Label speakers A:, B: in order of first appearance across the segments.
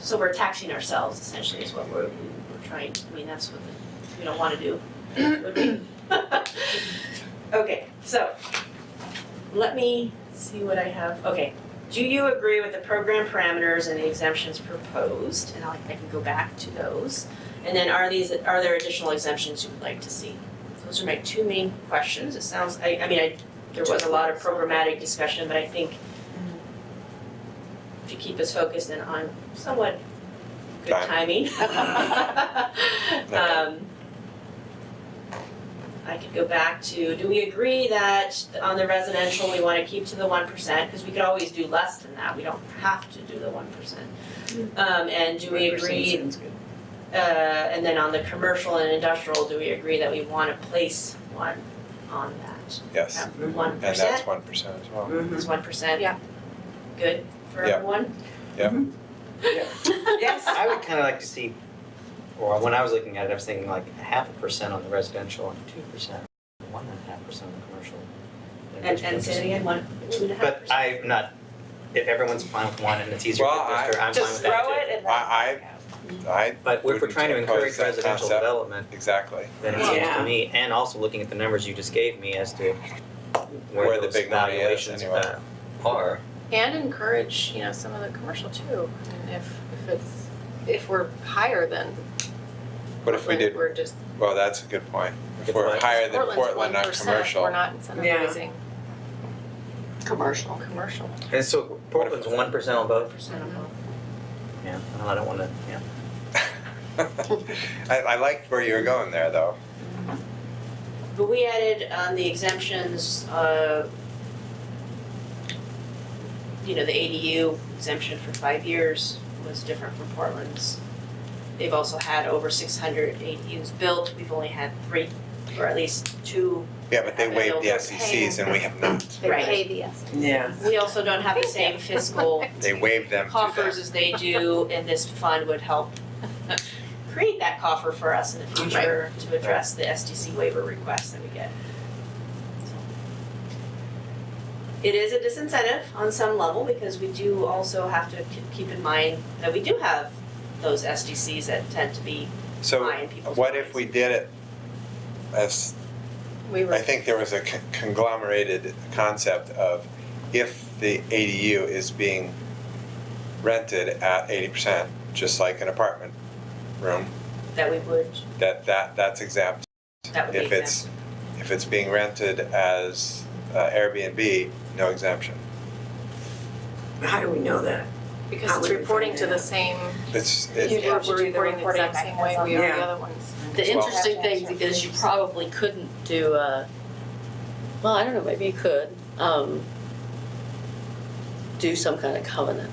A: So we're taxing ourselves essentially is what we're, we're trying, I mean, that's what the- we don't wanna do. would we? Okay, so, let me see what I have, okay. Do you agree with the program parameters and the exemptions proposed? And I'll, I can go back to those. And then are these, are there additional exemptions you would like to see? Those are my two main questions. It sounds, I, I mean, I, there was a lot of programmatic discussion, but I think if you keep us focused and on somewhat good timing. Um, I could go back to, do we agree that on the residential, we wanna keep to the one percent? Cause we could always do less than that, we don't have to do the one percent. Um, and do we agree uh, and then on the commercial and industrial, do we agree that we wanna place one on that?
B: Yes,
A: At one
B: and that's
A: percent,
B: one percent as well.
A: is one percent?
C: Yeah.
A: Good for
B: Yeah.
A: everyone?
B: Yeah.
A: Yes.
D: I would kind of like to see, or when I was looking at it, I was thinking like a half a percent on the residential and two percent, one and a half percent on the commercial.
A: And, and say it again, one, two and a half
D: But
A: percent?
D: I'm not, if everyone's fine with one and it's easier to
B: Well, I-
D: administer, I'm fine with
E: Just
D: that too.
E: throw it and then.
B: I- I
D: But if we're
B: wouldn't
D: trying to encourage
B: oppose that
D: residential
B: concept.
D: development,
B: exactly.
D: then it seems
E: Yeah.
D: to me, and also looking at the numbers you just gave me as to
B: Where
D: where
B: the
D: those
B: big money is,
D: valuations uh,
B: anyway.
D: are.
C: And encourage, you know, some of the commercial too, and if, if it's, if we're higher than
B: What if we
C: Portland,
B: did,
C: we're just,
B: well, that's a good point. If
D: Good
B: we're
D: point.
B: higher than
C: Portland's one
B: Portland, not
C: percent, we're
B: commercial,
C: not incentivizing
E: Commercial.
C: commercial.
D: And so Portland's one percent on both,
A: Percent of all.
D: yeah, well, I don't wanna, yeah.
B: I, I liked where you were going there though.
A: But we added on the exemptions, uh, you know, the ADU exemption for five years was different from Portland's. They've also had over six hundred ADUs built, we've only had three, or at least two.
B: Yeah, but they
A: And
B: waived the
A: they'll
B: SECs and we have not.
A: They Right. pay
E: the
F: Yeah.
A: We also don't have the same fiscal
B: They waived them to
A: coffers as they do, and this fund would help create that coffer for us in the future to address the SDC waiver requests that we get. So. It is a disincentive on some level, because we do also have to k- keep in mind that we do have those SDCs that tend to be
B: them.
A: high
B: So
A: in people's minds.
B: what if we did it as
C: We were,
B: I think there was a con- conglomerated concept of if the ADU is being rented at eighty percent, just like an apartment room,
A: That we would,
B: that that that's exempt.
A: that would be
B: If it's, if it's being rented as uh, Airbnb, no exemption.
F: How do we know that?
C: exempt,
F: how
C: because it's
F: would we
C: reporting
F: find
C: to the
F: out?
C: same,
B: It's
C: we're
B: it's
E: Yeah.
C: we're reporting the exact same way we are the
F: Yeah.
C: other ones.
G: The
B: Well-
G: interesting thing is you probably couldn't do a, well, I don't know, maybe you could, um, do some kind of covenant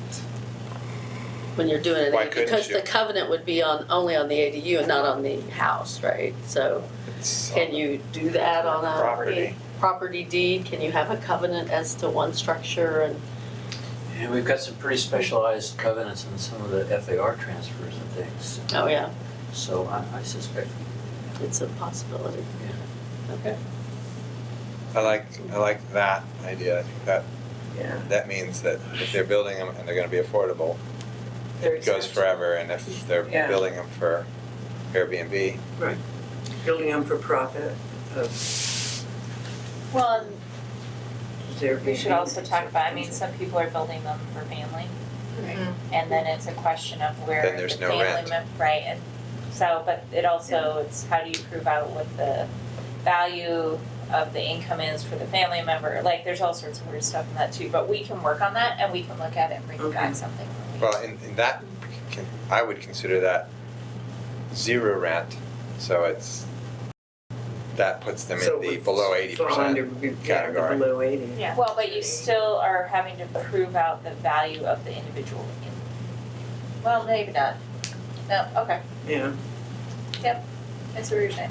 G: when you're doing an
B: Why
G: ADU,
B: couldn't
G: because
B: you?
G: the covenant would be on, only on the ADU and not on the house, right? So
B: it's
G: can you do that on a
B: property.
G: property deed? Can you have a covenant as to one structure and
H: And we've got some pretty specialized covenants in some of the FAR transfers and things,
G: Oh, yeah,
H: so I, I suspect.
G: it's a possibility. Okay.
B: I like I like that idea. I think that
F: Yeah.
B: that means that if they're building them and they're going to be affordable,
C: They're
B: it goes
C: exempt.
B: forever. And if they're
F: Yeah.
B: building them for Airbnb,
F: Building them for profit of
E: Well,
F: their.
E: we should also talk about, I mean, some people are building them for family.
A: Right.
E: And then it's a question of where
B: Then
E: the
B: there's no
E: family
B: rent.
E: mem- right, and so, but it also, it's how do you prove out what the value of the income is for the family member, like, there's all sorts of weird stuff in that too, but we can work on that and we can look at it and bring
F: Okay.
E: back something when we.
B: Well, in, in that, can, I would consider that zero rent, so it's, that puts them
F: So
B: in
F: it
B: the
F: would
B: below eighty
F: Fall under,
B: percent.
F: yeah, the
B: category.
F: below eighty.
E: Yeah, well, but you still are having to prove out the value of the individual in- Well, maybe not, no, okay,
F: Yeah,
E: that's what you're saying,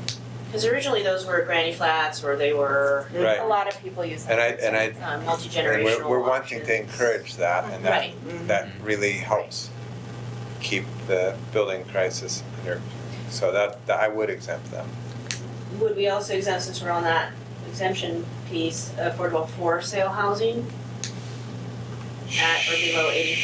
A: Cause originally those were granny flats, or they were
E: a
B: Right,
E: lot of people use that. um,
B: and I, and I,
A: uh,
B: and
A: multi-generational
B: we're, we're wanting to
A: options.
B: encourage that, and that,
A: Right.
F: Mhm.
B: that really helps keep the building crisis under, so that, that I would exempt them.
A: Would we also exempt, since we're on that exemption piece, affordable for sale housing at or below eighty